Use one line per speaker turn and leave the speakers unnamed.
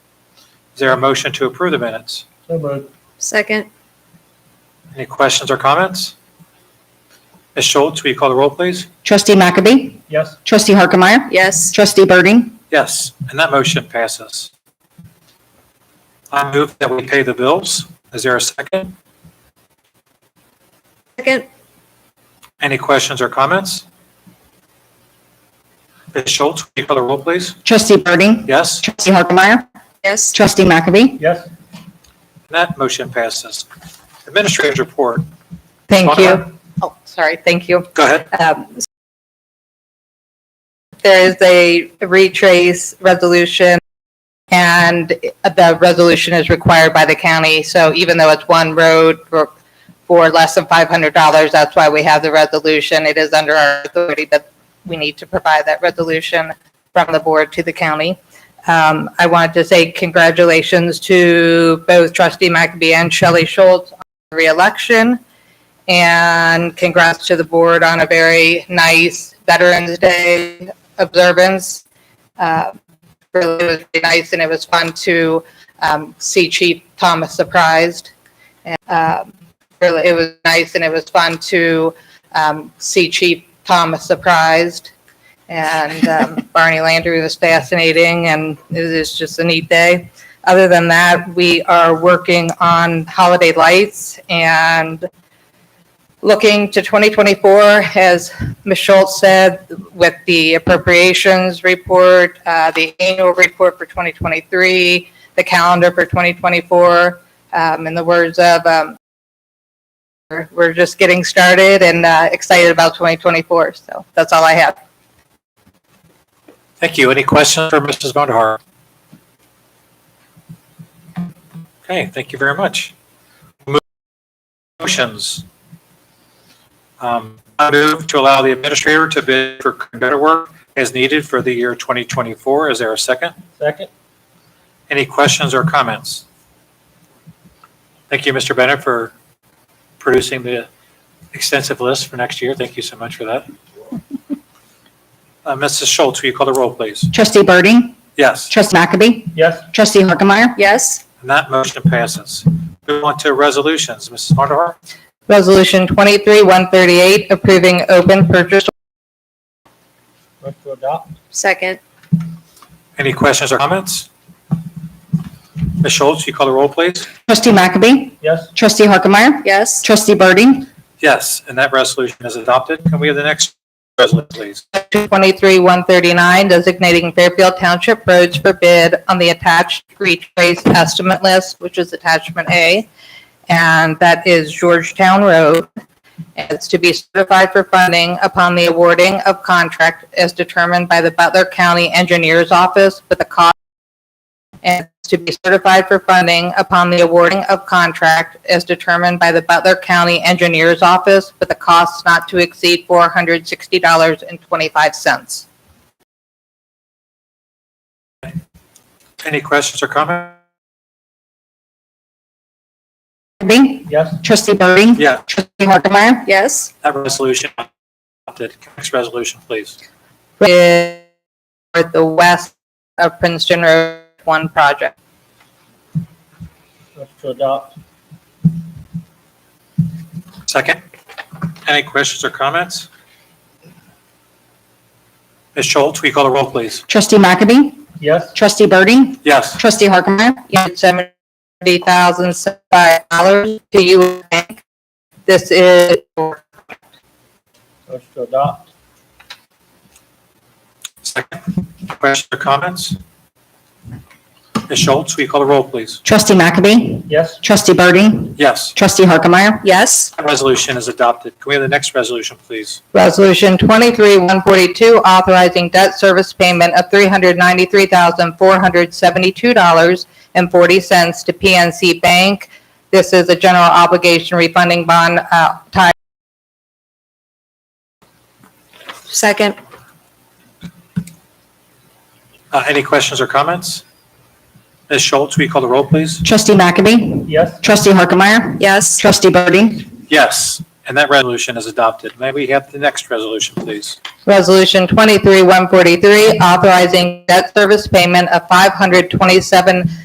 there a motion to approve the minutes?
So moved.
Second,
Any questions or comments? Ms. Schultz, will you call the roll, please?
Trustee Mackabee,
Yes.
Trustee Harkemaier,
yes.
Trustee Birding,
Yes, and that motion passes. I move that we pay the bills. Is there a second?
Second,
Any questions or comments? Ms. Schultz, will you call the roll, please?
Trustee Birding,
Yes, and
Trustee Harkemaier,
yes.
Trustee Mackabee.
Yes.
that motion passes. Administrator's report.
Thank
Monica?
you. Oh, sorry, thank you.
Go ahead.
Um, There is a retrace resolution, and the resolution is required by the county. So even though it's one road for for less than $500, that's why we have the resolution. It is under our authority, but we need to provide that resolution from the board to the county. Um, I wanted to say congratulations to both trustee McAbey and Shelley Schultz on the reelection. And congrats to the board on a very nice Veterans Day observance. Uh, Really was really nice, and it was fun to um, see Chief Thomas surprised. And, um, Really, it was nice, and it was fun to um, see Chief Thomas surprised. And um, Barney Landry was fascinating, and it was just a neat day. Other than that, we are working on holiday lights, and looking to 2024, as Ms. Schultz said, with the appropriations report, uh, the annual report for 2023, the calendar for 2024, um, in the words of, um, we're- we're just getting started and uh, excited about 2024. So that's all I have.
Thank you. Any questions for Mrs. Bondahar? Okay, thank you very much. Mo- Motions. Um, I move to allow the administrator to bid for computer work as needed for the year 2024. Is there a second?
Second.
Any questions or comments? Thank you, Mr. Bennett, for producing the extensive list for next year. Thank you so much for that. Uh, Mrs. Schultz, will you call the roll, please?
Trustee Birding,
Yes.
Trustee Mackabee,
Yes.
Trustee Harkemaier,
Yes,
And that motion passes. Move on to resolutions. Mrs. Mardhar,
Resolution 23-138, approving open purchase
Move to adopt.
second,
any questions or comments? Ms. Schultz, you call the roll, please?
Trustee Mackabee,
Yes.
Trustee Harkemaier,
yes.
Trustee Birding,
Yes, and that resolution is adopted. Can we have the next resolution, please?
23-139, designating Fairfield Township roads for bid on the attached retrace estimate list, which is attachment A, and that is Georgetown Road. It's to be certified for funding upon the awarding of contract as determined by the Butler County Engineers Office with a cost, and it's to be certified for funding upon the awarding of contract as determined by the Butler County Engineers Office with a cost not to exceed $460.25.
Any questions or comments?
Mackabee,
Yes.
Trustee Birding,
Yeah,
Trustee Harkemaier,
Yes,
that resolution is adopted. Next resolution, please.
is for the west of Princeton Road One project.
Move to adopt.
Second, any questions or comments? Ms. Schultz, will you call the roll, please?
Trustee Mackabee,
Yes.
Trustee Birding,
Yes.
Trustee Harkemaier,
Unit seventy thousand seventy-five dollars to you bank. This is for
Move to adopt.
Second, questions or comments? Ms. Schultz, will you call the roll, please?
Trustee Mackabee,
Yes.
Trustee Birding,
Yes,
Trustee Harkemaier,
yes,
that resolution is adopted. Can we have the next resolution, please?
resolution twenty-three one forty-two, authorizing debt service payment of three hundred ninety-three thousand four hundred seventy-two dollars and forty cents to PNC Bank. This is a general obligation refunding bond, uh, tied
second,
Uh, Any questions or comments? Ms. Schultz, will you call the roll, please?
Trustee Mackabee,
Yes.
Trustee Harkemaier,
yes.
Trustee Birding,
Yes, and that resolution is adopted. May we have the next resolution, please?
Resolution 23-143, authorizing debt service payment of 527